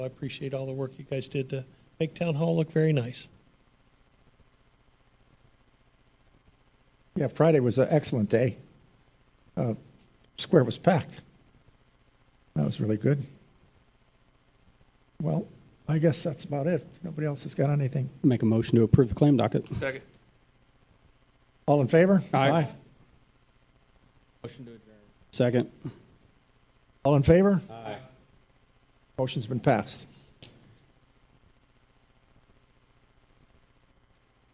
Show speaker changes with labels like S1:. S1: I appreciate all the work you guys did to make Town Hall look very nice.
S2: Yeah, Friday was an excellent day. Uh, Square was packed. That was really good. Well, I guess that's about it. Nobody else has got anything.
S3: Make a motion to approve the claim docket.
S4: Second.
S2: All in favor?
S3: Aye.
S4: Motion to adjourn.
S3: Second.
S2: All in favor?
S4: Aye.
S2: Motion's been passed.